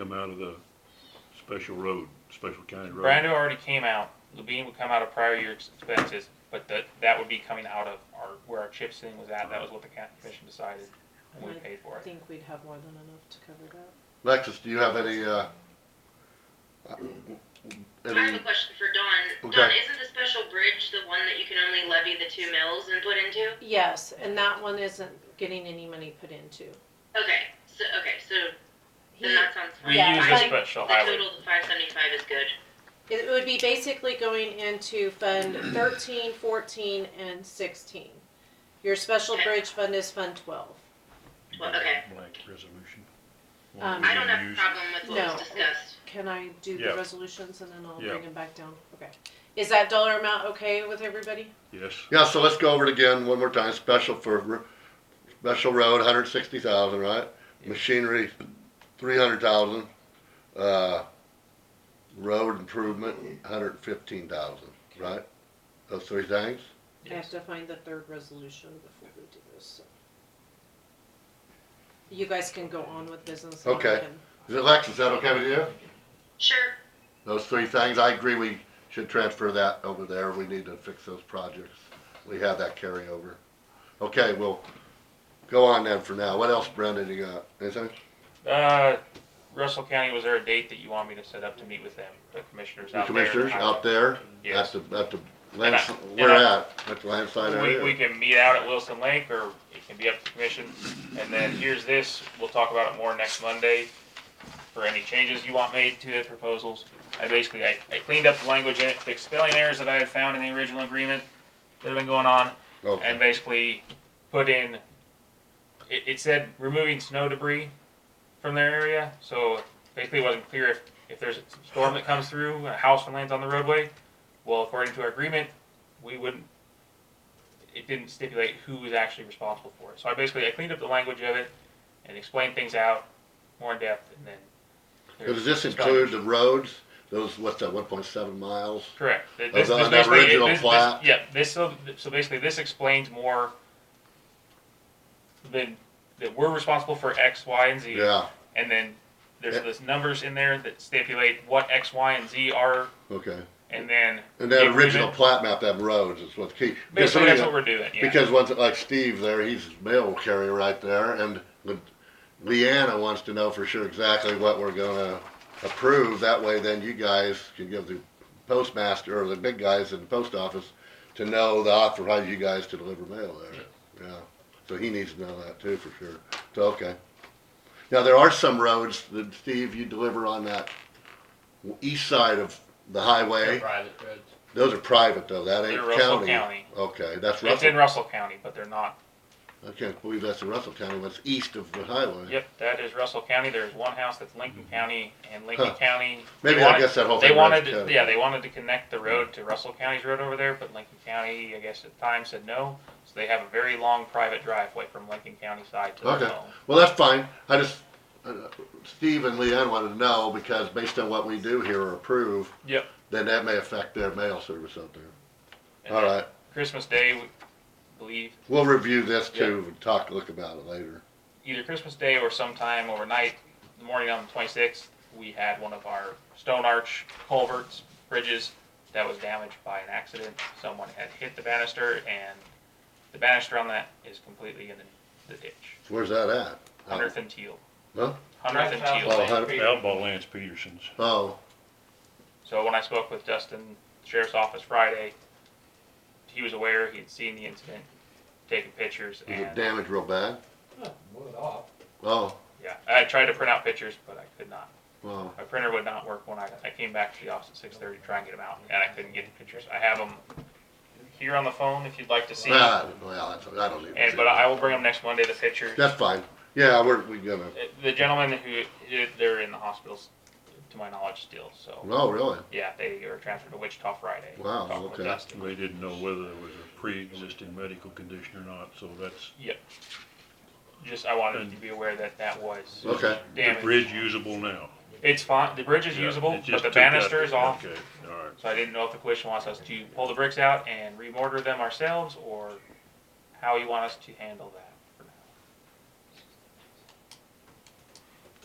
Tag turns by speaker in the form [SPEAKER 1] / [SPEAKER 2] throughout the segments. [SPEAKER 1] come out of the special road, special county road.
[SPEAKER 2] Brando already came out, Levine would come out of prior year expenses, but that, that would be coming out of our, where our chip sitting was at, that was what the county commission decided, and we paid for
[SPEAKER 3] I
[SPEAKER 2] it.
[SPEAKER 3] think we'd have more than enough to cover that.
[SPEAKER 4] Alexis, do you have any, uh, uh,
[SPEAKER 5] I have
[SPEAKER 4] any,
[SPEAKER 5] a question for Dawn.
[SPEAKER 4] Okay.
[SPEAKER 5] Dawn, isn't the special bridge the one that you can only levy the two mills and put into?
[SPEAKER 3] Yes, and that one isn't getting any money put into.
[SPEAKER 5] Okay, so, okay, so then
[SPEAKER 3] He,
[SPEAKER 5] that sounds fine.
[SPEAKER 2] We
[SPEAKER 3] Yeah,
[SPEAKER 2] use
[SPEAKER 3] I-
[SPEAKER 2] a special
[SPEAKER 5] The
[SPEAKER 2] highway,
[SPEAKER 5] total of five seventy-five is good.
[SPEAKER 3] it would be basically going into Fund thirteen, fourteen, and sixteen. Your special
[SPEAKER 5] Okay.
[SPEAKER 3] bridge fund is Fund twelve.
[SPEAKER 5] Well, okay.
[SPEAKER 1] Blank resolution.
[SPEAKER 3] Um,
[SPEAKER 5] I don't have a
[SPEAKER 1] Use-
[SPEAKER 5] problem with what
[SPEAKER 3] No.
[SPEAKER 5] was discussed.
[SPEAKER 3] Can I do
[SPEAKER 1] Yeah.
[SPEAKER 3] the resolutions and then I'll
[SPEAKER 1] Yeah.
[SPEAKER 3] bring them back down? Okay. Is that dollar amount okay with everybody?
[SPEAKER 1] Yes,
[SPEAKER 4] yeah, so let's go over it again one more time, special for, r- special road, hundred sixty thousand, right? Machinery, three hundred thousand, uh, road improvement, hundred fifteen thousand, right? Those three things?
[SPEAKER 3] I have
[SPEAKER 2] yes,
[SPEAKER 3] to find the third resolution before we do this, so. You guys can go on with business. and I
[SPEAKER 4] Okay.
[SPEAKER 3] can-
[SPEAKER 4] Is it, Lex, is that okay with you?
[SPEAKER 5] Sure.
[SPEAKER 4] Those three things, I agree, we should transfer that over there, we need to fix those projects, we have that carryover. Okay, we'll go on then for now, what else, Brendan, you got, anything?
[SPEAKER 2] uh, Russell County, was there a date that you want me to set up to meet with them, the commissioners
[SPEAKER 4] The
[SPEAKER 2] out there?
[SPEAKER 4] commissioners out there, at
[SPEAKER 2] Yes,
[SPEAKER 4] the, at the land,
[SPEAKER 2] And I- and
[SPEAKER 4] where
[SPEAKER 2] I-
[SPEAKER 4] at, at the landside
[SPEAKER 2] we, we
[SPEAKER 4] area?
[SPEAKER 2] can meet out at Wilson Lake, or it can be up to the commission, and then here's this, we'll talk about it more next Monday, for any changes you want made to the proposals. I basically, I, I cleaned up the language in it, fixed spelling errors that I had found in the original agreement that have been going on, and
[SPEAKER 4] Okay,
[SPEAKER 2] basically put in, it, it said removing snow debris from their area, so basically it wasn't clear if, if there's a storm that comes through, a house and lands on the roadway, well, according to our agreement, we wouldn't, it didn't stipulate who was actually responsible for it. So I basically, I cleaned up the language of it and explained things out more in depth and then.
[SPEAKER 4] does this include the roads, those, what's that, one point seven miles?
[SPEAKER 2] Correct. Th-
[SPEAKER 4] Those
[SPEAKER 2] this-
[SPEAKER 4] on
[SPEAKER 2] this
[SPEAKER 4] the
[SPEAKER 2] basically- it-
[SPEAKER 4] original
[SPEAKER 2] this- this-
[SPEAKER 4] plat.
[SPEAKER 2] Yeah, this, so, so basically this explains more than, that we're responsible for X, Y, and Z.
[SPEAKER 4] Yeah,
[SPEAKER 2] And then there's
[SPEAKER 4] Yeah.
[SPEAKER 2] this numbers in there that stipulate what X, Y, and Z are,
[SPEAKER 4] okay,
[SPEAKER 2] and then
[SPEAKER 4] and that
[SPEAKER 2] The
[SPEAKER 4] original
[SPEAKER 2] agreement.
[SPEAKER 4] plat map, that roads is what's key. Because
[SPEAKER 2] basically that's
[SPEAKER 4] somebody-
[SPEAKER 2] what we're doing, yeah.
[SPEAKER 4] Because once, like Steve there, he's mail carrier right there, and Le- Leanna wants to know for sure exactly what we're gonna approve. That way, then you guys can give the postmaster or the big guys in the post office to know the authorize you guys to deliver mail there. Yeah, so he needs to know that too for sure. So, okay. Now, there are some roads that, Steve, you deliver on that east side of the highway.
[SPEAKER 6] Private roads.
[SPEAKER 4] Those are private though, that ain't
[SPEAKER 2] They're Russell
[SPEAKER 4] county.
[SPEAKER 2] County.
[SPEAKER 4] Okay,
[SPEAKER 2] It's
[SPEAKER 4] that's Russell
[SPEAKER 2] in Russell County, but they're not.
[SPEAKER 4] I can't believe that's in Russell County, that's east of the highway.
[SPEAKER 2] Yep, that is Russell County. There's one house that's Lincoln County and Lincoln
[SPEAKER 4] Huh.
[SPEAKER 2] County. they
[SPEAKER 4] Maybe I
[SPEAKER 2] wanted-
[SPEAKER 4] guess that whole thing.
[SPEAKER 2] They wanted,
[SPEAKER 4] runs
[SPEAKER 2] to-
[SPEAKER 4] county.
[SPEAKER 2] yeah, they wanted to connect the road to Russell County's road over there, but Lincoln County, I guess at the time, said no. So they have a very long private driveway from Lincoln County side to
[SPEAKER 4] Okay.
[SPEAKER 2] their home.
[SPEAKER 4] Well, that's fine, I just, uh, Steve and Leanne wanted to know, because based on what we do here or approve,
[SPEAKER 2] Yep.
[SPEAKER 4] then that may affect their mail service out there.
[SPEAKER 2] And
[SPEAKER 4] All
[SPEAKER 2] then
[SPEAKER 4] right,
[SPEAKER 2] Christmas Day, we believe,
[SPEAKER 4] we'll review this too, and talk, look about it later.
[SPEAKER 2] either Christmas Day or sometime overnight, the morning on the twenty-sixth, we had one of our stone arch culverts, bridges, that was damaged by an accident. Someone had hit the banister and the banister on that is completely in the, the ditch.
[SPEAKER 4] Where's that at?
[SPEAKER 2] Hundredth and Teal.
[SPEAKER 4] Huh?
[SPEAKER 2] Hundredth and Teal.
[SPEAKER 4] Oh, hun-
[SPEAKER 1] outlaw Lance Peterson's.
[SPEAKER 4] Oh,
[SPEAKER 2] So when I spoke with Justin, sheriff's office Friday, he was aware, he had seen the incident, taken pictures,
[SPEAKER 4] is it
[SPEAKER 2] and
[SPEAKER 4] damaged real bad?
[SPEAKER 6] Wood off.
[SPEAKER 4] Oh,
[SPEAKER 2] yeah, I tried to print out pictures, but I could not.
[SPEAKER 4] wow,
[SPEAKER 2] My printer would not work when I, I came back to the office at six thirty to try and get them out, and I couldn't get the pictures. I have them here on the phone if you'd like to see.
[SPEAKER 4] nah, Ah, well, that's, I don't need to.
[SPEAKER 2] And
[SPEAKER 4] see
[SPEAKER 2] but
[SPEAKER 4] that.
[SPEAKER 2] I will bring them next Monday. The pictures. Uh,
[SPEAKER 4] That's fine, yeah, we're, we gonna,
[SPEAKER 2] The gentleman who they're in the hospitals, to my knowledge, still. So
[SPEAKER 4] oh, really?
[SPEAKER 2] yeah, they were transferred to Wichita Friday.
[SPEAKER 4] Wow,
[SPEAKER 2] Talking with
[SPEAKER 4] okay.
[SPEAKER 2] Justin.
[SPEAKER 1] They didn't know whether there was a pre-existing medical condition or not, so that's,
[SPEAKER 2] Just I wanted you to be aware that that was
[SPEAKER 4] Okay,
[SPEAKER 1] the
[SPEAKER 2] damaged.
[SPEAKER 1] bridge usable now.
[SPEAKER 2] It's fine. The bridge is
[SPEAKER 1] Yeah, it
[SPEAKER 2] usable,
[SPEAKER 1] just
[SPEAKER 2] but the
[SPEAKER 1] took that-
[SPEAKER 2] banister is off.
[SPEAKER 1] Okay, all right.
[SPEAKER 2] So I didn't know if the commission wants us to pull the bricks out and remortar them ourselves, or how you want us to handle that. for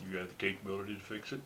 [SPEAKER 2] now.
[SPEAKER 1] you have the capability to fix it.